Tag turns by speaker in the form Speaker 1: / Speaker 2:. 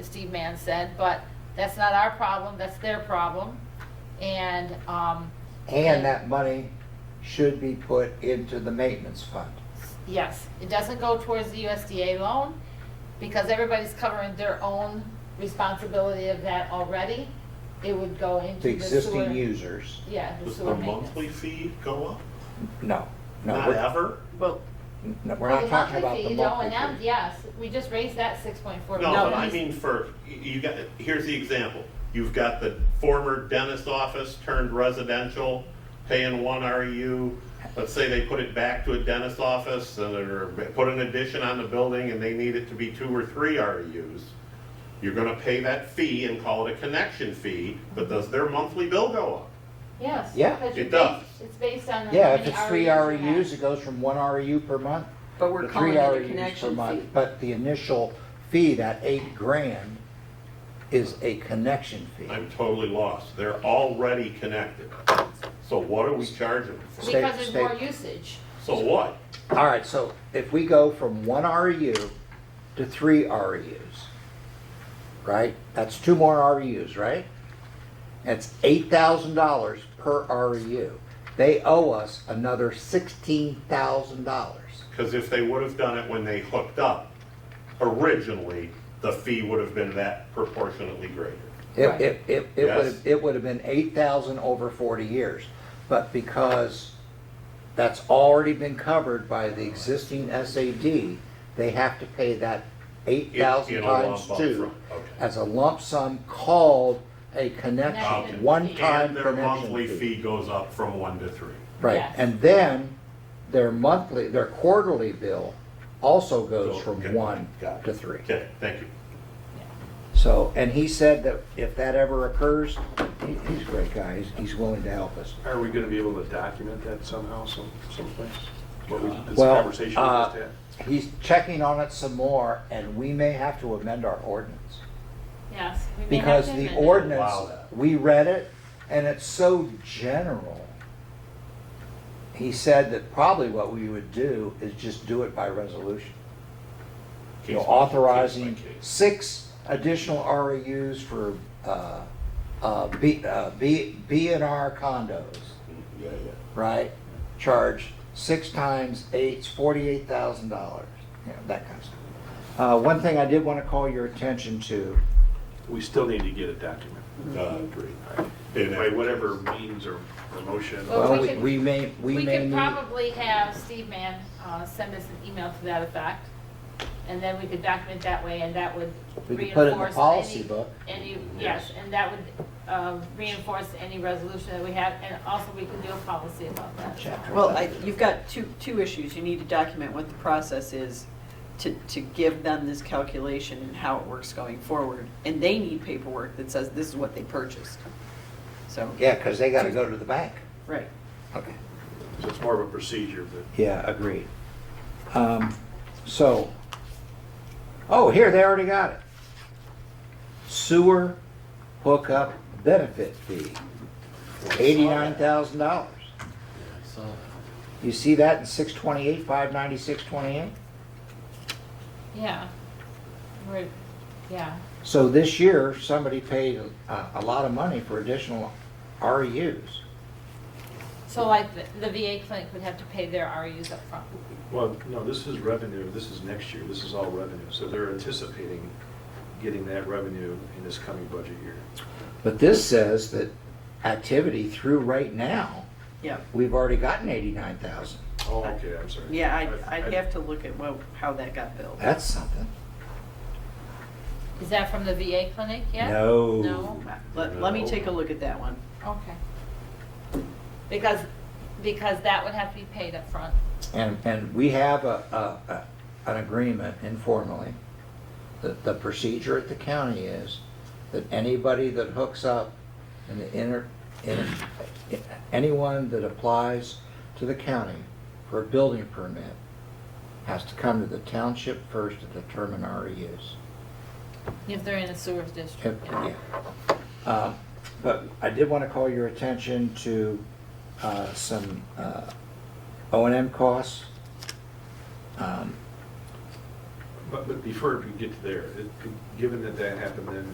Speaker 1: Steve Mann said, but that's not our problem, that's their problem. And, um,
Speaker 2: And that money should be put into the maintenance fund.
Speaker 1: yes, it doesn't go towards the USDA loan because everybody's covering their own responsibility of that already. It would go into
Speaker 2: The
Speaker 1: the sewer.
Speaker 2: existing users,
Speaker 1: Yeah, the
Speaker 3: Does
Speaker 1: sewer
Speaker 3: the
Speaker 1: maintenance.
Speaker 3: monthly fee go up?
Speaker 2: no, no,
Speaker 3: Not
Speaker 2: we're,
Speaker 3: ever?
Speaker 4: Well,
Speaker 2: no, we're
Speaker 1: Well,
Speaker 2: not talking about the
Speaker 1: The monthly fee,
Speaker 2: monthly fee.
Speaker 1: the O and M, yes, we just raised that six point four.
Speaker 3: No, but I
Speaker 4: he's-
Speaker 3: mean for, you- you got, here's the example. You've got the former dentist office turned residential, paying one REU. Let's say they put it back to a dentist office and or put an addition on the building and they need it to be two or three REUs. You're gonna pay that fee and call it a connection fee, but does their monthly bill go up?
Speaker 1: Yes.
Speaker 2: Yeah.
Speaker 1: because
Speaker 3: It
Speaker 1: it's
Speaker 3: does.
Speaker 1: based- It's based on. how
Speaker 2: Yeah, if
Speaker 1: many
Speaker 2: it's three E
Speaker 1: REUs you have.
Speaker 2: REUs, it goes from one REU per month
Speaker 4: but
Speaker 2: to
Speaker 4: we're calling
Speaker 2: three
Speaker 4: it a
Speaker 2: REUs per
Speaker 4: connection
Speaker 2: month.
Speaker 4: fee.
Speaker 2: But the initial fee, that eight grand, is a connection fee.
Speaker 3: I'm totally lost. They're already connected. So what are we charging them for?
Speaker 2: State-
Speaker 1: Because there's
Speaker 2: state-
Speaker 1: more usage.
Speaker 3: So what?
Speaker 2: All right, so if we go from one REU to three REUs, right? That's two more REUs, right? That's eight thousand dollars per REU. They owe us another sixteen thousand dollars.
Speaker 3: Because if they would have done it when they hooked up originally, the fee would have been that proportionately greater.
Speaker 2: It,
Speaker 4: Right.
Speaker 2: it, it, it
Speaker 3: Yes.
Speaker 2: would have, it would have been eight thousand over forty years. But because that's already been covered by the existing SAD, they have to pay that eight thousand
Speaker 3: In- in a lump
Speaker 2: times
Speaker 3: upfront,
Speaker 2: two
Speaker 3: okay.
Speaker 2: as a lump sum called a
Speaker 1: Connection
Speaker 2: connection,
Speaker 1: fee.
Speaker 2: one-time
Speaker 3: And their
Speaker 2: connection
Speaker 3: monthly
Speaker 2: fee.
Speaker 3: fee goes up from one to three.
Speaker 2: Right,
Speaker 1: Yes.
Speaker 2: and then their monthly, their quarterly bill also goes
Speaker 3: So,
Speaker 2: from
Speaker 3: okay,
Speaker 2: one
Speaker 3: got it.
Speaker 2: to three.
Speaker 3: Okay, thank you.
Speaker 2: So, and he said that if that ever occurs, he- he's a great guy, he's, he's willing to help us.
Speaker 5: Are we gonna be able to document that somehow, some, someplace? What we, this
Speaker 2: Well,
Speaker 5: conversation we
Speaker 2: uh,
Speaker 5: just had?
Speaker 2: He's checking on it some more, and we may have to amend our ordinance.
Speaker 1: Yes. we may have
Speaker 2: Because
Speaker 1: to
Speaker 2: the
Speaker 1: amend it.
Speaker 2: ordinance,
Speaker 3: Wow.
Speaker 2: we read it, and it's so general. He said that probably what we would do is just do it by resolution. You know,
Speaker 3: Case by- case by
Speaker 2: authorizing
Speaker 3: case.
Speaker 2: six additional REUs for, uh, uh, B, uh, B, B and R condos
Speaker 3: Yeah, yeah.
Speaker 2: right? Charge six times eight's forty-eight thousand dollars, you know, that kind of stuff. Uh, one thing I did want to call your attention to,
Speaker 5: We still need to get a document.
Speaker 3: Uh, agree. In
Speaker 5: By
Speaker 3: every
Speaker 5: whatever
Speaker 3: case.
Speaker 5: means or or motion.
Speaker 1: Well,
Speaker 2: well,
Speaker 1: we
Speaker 2: we-
Speaker 1: could-
Speaker 2: we may, we
Speaker 1: We
Speaker 2: may
Speaker 1: could
Speaker 2: need,
Speaker 1: probably have Steve Mann uh, send us an email to that effect, and then we could document that way, and that would
Speaker 2: we could put it in the
Speaker 1: reinforce
Speaker 2: policy
Speaker 1: any-
Speaker 2: book.
Speaker 1: Any, yes, and that would um, reinforce any resolution that we have, and also we can do a policy about that.
Speaker 2: Chapter
Speaker 4: Well, I,
Speaker 2: eleven.
Speaker 4: you've got two, two issues. You need to document what the process is to, to give them this calculation and how it works going forward. And they need paperwork that says this is what they purchased. So,
Speaker 2: Yeah, because they got to go to the bank.
Speaker 4: right.
Speaker 2: Okay.
Speaker 5: So it's more of a procedure, but.
Speaker 2: Yeah, agreed. Um, so, oh, here, they already got it. Sewer hookup benefit fee, eighty-nine thousand dollars. You see that in six twenty-eight, five ninety-six, twenty-eight?
Speaker 1: Yeah. We're, yeah.
Speaker 2: So this year, somebody paid a, a lot of money for additional E REUs.
Speaker 1: So like the- the VA clinic would have to pay their RUs up front.
Speaker 5: Well, no, this is revenue, this is next year, this is all revenue, so they're anticipating getting that revenue in this coming budget year.
Speaker 2: But this says that activity through right now,
Speaker 4: Yeah,
Speaker 2: we've already gotten eighty-nine thousand.
Speaker 5: Oh, okay, I'm sorry.
Speaker 4: yeah, I'd, I'd have to look at well, how that got billed.
Speaker 2: That's something.
Speaker 1: Is that from the VA clinic yet?
Speaker 2: No.
Speaker 1: No?
Speaker 4: Let, let me take a look at that one.
Speaker 1: Okay. Because, because that would have to be paid up front.
Speaker 2: And, and we have a, a, a- an agreement informally, that the procedure at the county is that anybody that hooks up and the inter, in- anyone that applies to the county for a building permit has to come to the township first to determine E REUs.
Speaker 1: If they're in a sewer district.
Speaker 2: Yeah. Um, But I did want to call your attention to uh, some O and M costs. Um,
Speaker 5: But, but before we get to there, it- given that that happened then